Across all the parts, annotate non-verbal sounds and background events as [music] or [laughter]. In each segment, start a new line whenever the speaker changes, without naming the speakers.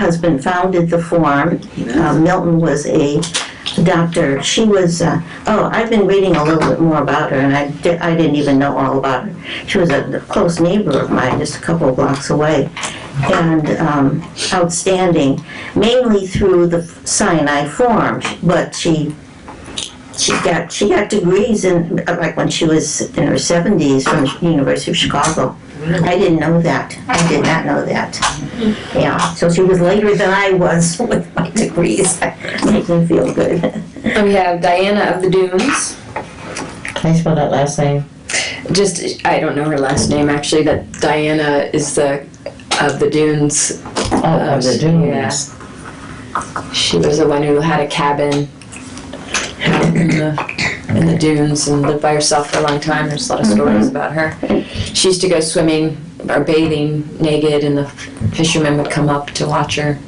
husband founded the forum. Uh, Milton was a doctor. She was, uh, oh, I've been reading a little bit more about her, and I di- I didn't even know all about her. She was a close neighbor of mine, just a couple of blocks away, and um, outstanding, mainly through the Sinai Forum, but she she got she got degrees in like when she was in her 70s from University of Chicago. I didn't know that. I did not know that. Yeah, so she was later than I was [laughs] with my degrees. Makes me feel good.
We have Diana of the Dunes.
Can you spell that last name?
[laughs]
Just, I don't know her last name actually, that Diana is the, of the Dunes.
Oh, of the dunes.
She was the one who had a cabin out in the, in the dunes and lived by herself for a long time. There's a lot of
Mm-hmm.
stories about her. She used to go swimming or bathing naked and the fishermen would come up to watch her.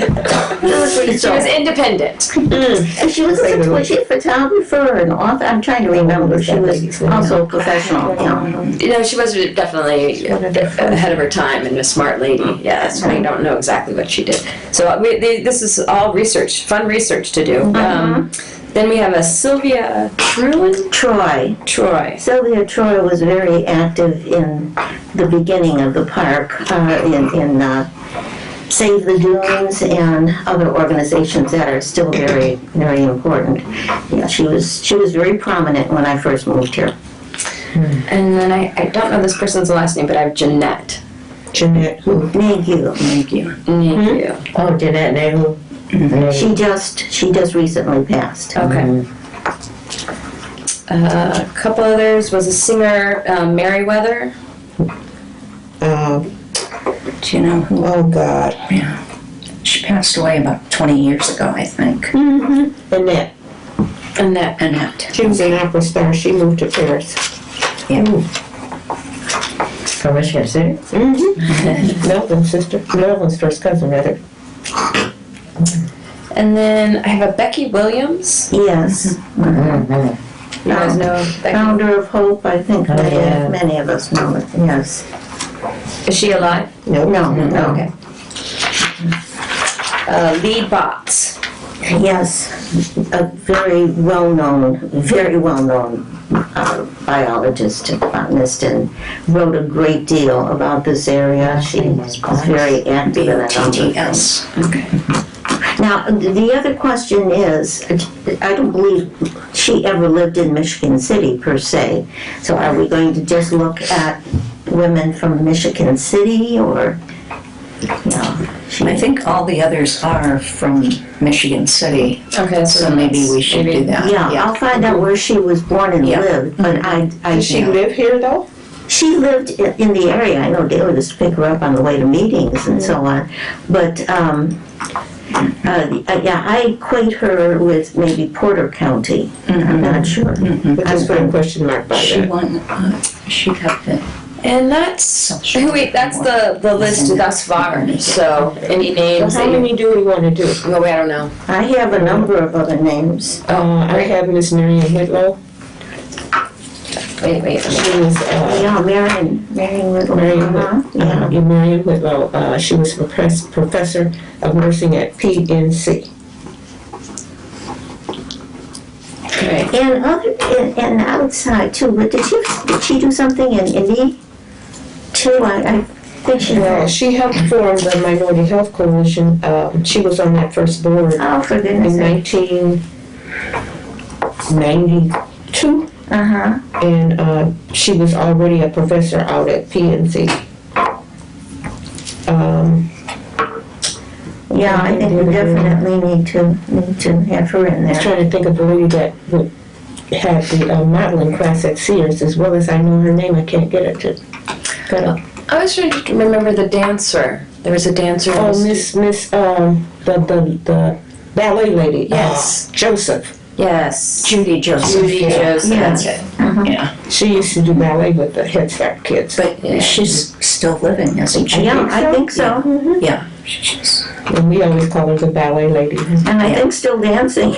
She was independent.
And she was a, was she a photographer and author? I'm trying to remember. She was also a professional. Yeah.
You know, she was definitely ahead of her Mm. time and a smart lady. Yes, we don't know exactly what she did. So uh, we, the- this is all research, fun research to do. Um, then we have a Sylvia Trulin
Troy.
Troy.
Sylvia Troy was very active in the beginning of the park, uh, in, in uh, Save the Dunes and other organizations that are still very, very important. Yeah, she was, she was very prominent when I first moved here.
And then I, I don't know this person's last name, but I have Jeanette.
Jeanette who?
Thank you.
Thank you.
Oh, Jeanette Nehru. Nehru.
She just, she just recently passed.
Okay. Uh, a couple others was a singer, um, Meriwether.
Um,
Do you know who?
oh God.
She passed away about 20 years ago, I think.
Mm.
Annette,
Annette.
Annette.
she was an opera star. She moved to Paris.
From Michigan City? [laughs]
Mm-hmm. Melvin's sister. Melvin's first cousin, rather.
And then I have a Becky Williams.
Yes,
Mm-hmm.
You guys know Becky?
founder of Hope, I think,
Oh,
many
yeah.
many of us know it, yes.
Is she alive?
No.
No, no,
Okay. Uh, lead box.
yes, a very well-known, very well-known uh, biologist and botanist and wrote a great deal about this area. She was very active in a number of things.
B-O-T-T-S.
Now, the other question is, I don't believe she ever lived in Michigan City per se. So are we going to just look at women from Michigan City or, you know? she-
I think all the others are from Michigan City,
Okay,
so maybe we should do that.
Yeah, I'll find out where she was born and
Yeah.
lived, but I, I.
Does she live here though?
She lived i- in the area. I know Dale used to pick her up on the way to meetings and so on. But um, uh, the- uh, yeah, I equate her with maybe Porter County. I'm
Mm-hmm.
not sure.
Mm-hmm.
We just put a question mark by
She
that.
won, uh, she got the,
And that's [laughs]
Social
wait, that's the, the list thus far. So any names?
How
that you-
many do we want to do?
Well, we- I don't know.
I have a number of other names.
Uh, I have Miss Marion Whitlow.
Wait, wait.
She was uh,
Yeah, Marion, Marion Whittle.
Marion
uh-huh,
Whitlow.
Yeah.
Uh, Marion Whitlow. Uh, she was a profess- professor of nursing at PNC.
Okay.
And other, and, and outside too, but did she, did she do something in Indy too? I, I think she
Well,
was.
she helped form the Minority Health Coalition. Um, she was on that first board
Oh, for goodness
in
sake.
1992.
Uh-huh.
and uh, she was already a professor out at PNC. Um,
Yeah, I think we definitely need to, need to have her in
I'm
there.
trying to think of the lady that would- had the uh, modeling class at Sears, as well as I know her name, I can't get it to. got it.
I was trying to remember the dancer. There was a dancer. who
Oh,
was-
Miss Miss um, the the the ballet lady. uh,
Yes.
Joseph.
Yes.
Judy Joseph.
Judy Joseph.
Yeah.
That's it.
She used to do ballet with the Head Start kids.
Yeah.
But she's still living, isn't she?
Yeah, I think so,
Yeah. She's-
And we always call her the ballet lady.
and I think still dancing.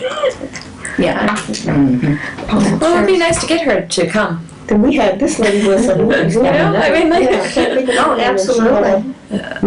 Yeah. Mm-hmm.
Well, it'd be nice to get her to come.
Then we had this lady was a.
You know, I mean, like-
Yeah, I can't think of her
Oh,
name. She had a-
absolutely.